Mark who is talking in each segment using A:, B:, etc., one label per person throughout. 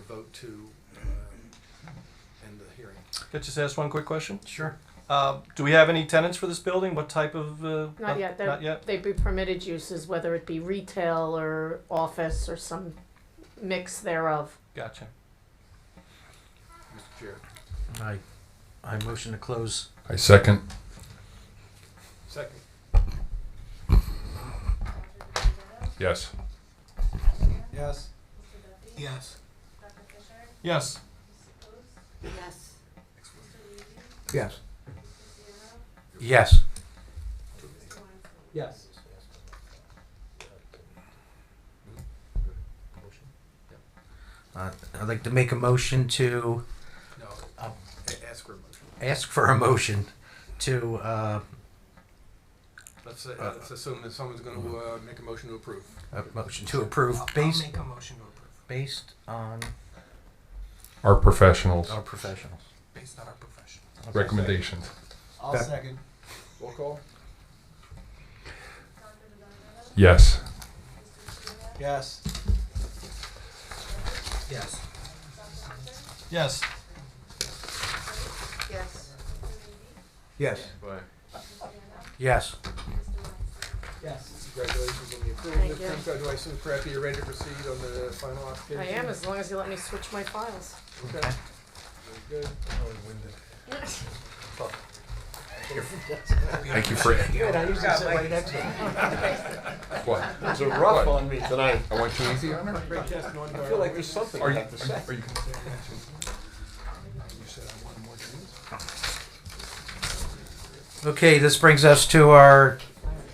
A: vote to um, end the hearing.
B: Could I just ask one quick question?
A: Sure.
B: Uh, do we have any tenants for this building? What type of? Uh,
C: Not yet.
B: Not
C: They're-
B: yet.
C: They'd be permitted uses, whether it be retail or office or some mix thereof.
B: Gotcha.
A: Mr. Chair,
D: I, I motion to close.
E: I second.
A: second.
E: Yes.
A: Yes. Yes.
B: Yes.
C: Yes.
D: Yes. Yes.
A: Yes.
D: Uh, I'd like to make a motion to
A: No,
D: Um,
A: a- ask for a motion.
D: ask for a motion to uh,
A: Let's, say-
F: Uh,
A: let's assume that someone's gonna
F: mm-hmm.
A: uh, make a motion to approve.
D: a motion to approve based
A: a motion to approve,
D: based on
E: Our professionals.
D: our professionals.
A: based on our profession.
E: Recommendations.
A: I'll second. Roll call?
E: Yes.
A: Yes.
D: Yes.
B: Yes.
C: Yes.
D: Yes. Yes.
A: Yes. Congratulations on the approval.
C: Thank
A: Mr. Krimko, do I assume correctly you're ready to proceed on the final
C: I
A: application?
C: am, as long as you let me switch my files.
A: Okay. Very good.
E: Thank you for what?
F: It's a rough
E: What?
F: on me tonight.
E: I want you easy on her.
A: Great test, Norm.
F: I feel like there's something
E: Are
F: I
E: you?
F: have to say.
E: Are you?
D: Okay, this brings us to our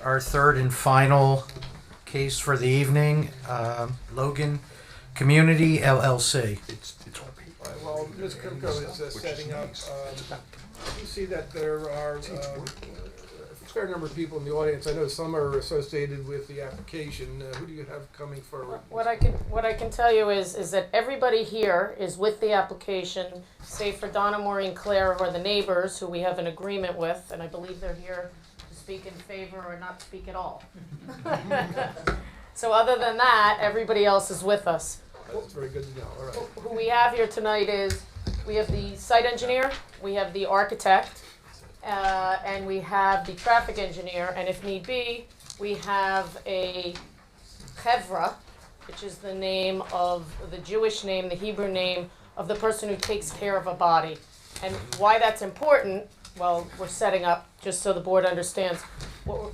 D: our third and final case for the evening. Um, Logan Community LLC.
E: It's it's all paper.
A: All right, Well, Ms. Krimko is uh, setting up, um, you see that there are um, a fair number of people in the audience. I know some are associated with the application. Uh, Who do you have coming forward?
C: What I can, what I can tell you is, is that everybody here is with the application, save for Donna, Maureen, Claire, who are the neighbors, who we have an agreement with, and I believe they're here to speak in favor or not speak at all. So other than that, everybody else is with us.
A: That's very good to know, all right.
C: Who we have here tonight is, we have the site engineer, we have the architect, uh, and we have the traffic engineer, and if need be, we have a chevra, which is the name of, the Jewish name, the Hebrew name of the person who takes care of a body. And why that's important, well, we're setting up, just so the board understands, what we're,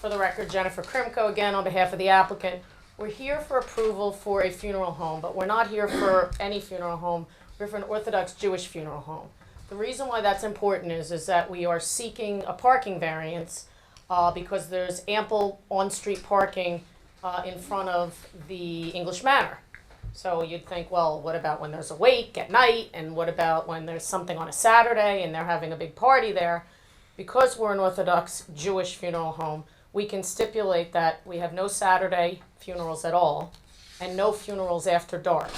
C: for the record, Jennifer Krimko again on behalf of the applicant. We're here for approval for a funeral home, but we're not here for any funeral home. We're for an Orthodox Jewish funeral home. The reason why that's important is, is that we are seeking a parking variance uh, because there's ample on-street parking uh, in front of the English Manor. So you'd think, well, what about when there's a wake at night, and what about when there's something on a Saturday and they're having a big party there? because we're an Orthodox Jewish funeral home, we can stipulate that we have no Saturday funerals at all and no funerals after dark.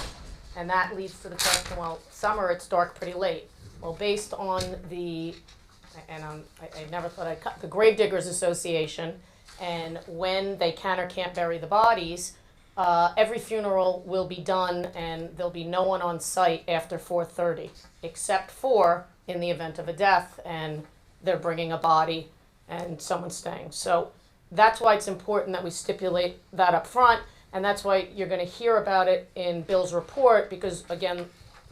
C: And that leads to the question, well, summer it's dark pretty late. Well, based on the, and um, I, I never thought I'd cut, the Grave Diggers Association and when they can or can't bury the bodies, uh, every funeral will be done and there'll be no one on site after 4.30 except for in the event of a death and they're bringing a body and someone's staying. So that's why it's important that we stipulate that up front, and that's why you're going to hear about it in Bill's report because again,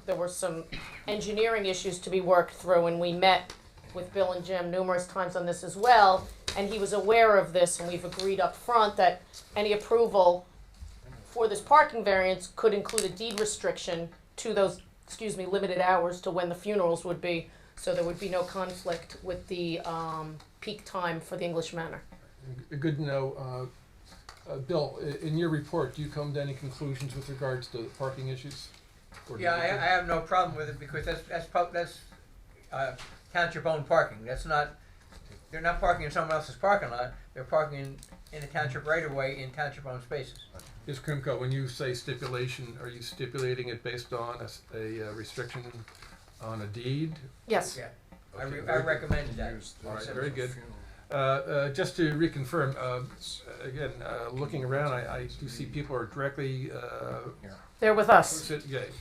C: there were some engineering issues to be worked through, and we met with Bill and Jim numerous times on this as well, and he was aware of this, and we've agreed up front that any approval for this parking variance could include a deed restriction to those, excuse me, limited hours to when the funerals would be, so there would be no conflict with the, um, peak time for the English Manor.
A: Good to know. Uh, uh, Bill, i- in your report, do you come to any conclusions with regards to the parking issues? Or do
G: Yeah,
A: you-
G: I, I have no problem with it because that's, that's, pub- that's, uh, count your bone parking, that's not, they're not parking in someone else's parking lot, they're parking in, in a township right of way in township owned spaces.
A: Ms. Krimko, when you say stipulation, are you stipulating it based on a s- a uh, restriction on a deed
C: Yes.
G: Yeah, I,
A: Okay,
G: re- I
A: very good.
G: recommended that.
A: All right, very good. Uh, uh, Just to reconfirm, uh, again, uh, looking around, I I do see people are directly, uh,
C: They're with us.
A: sit- yeah,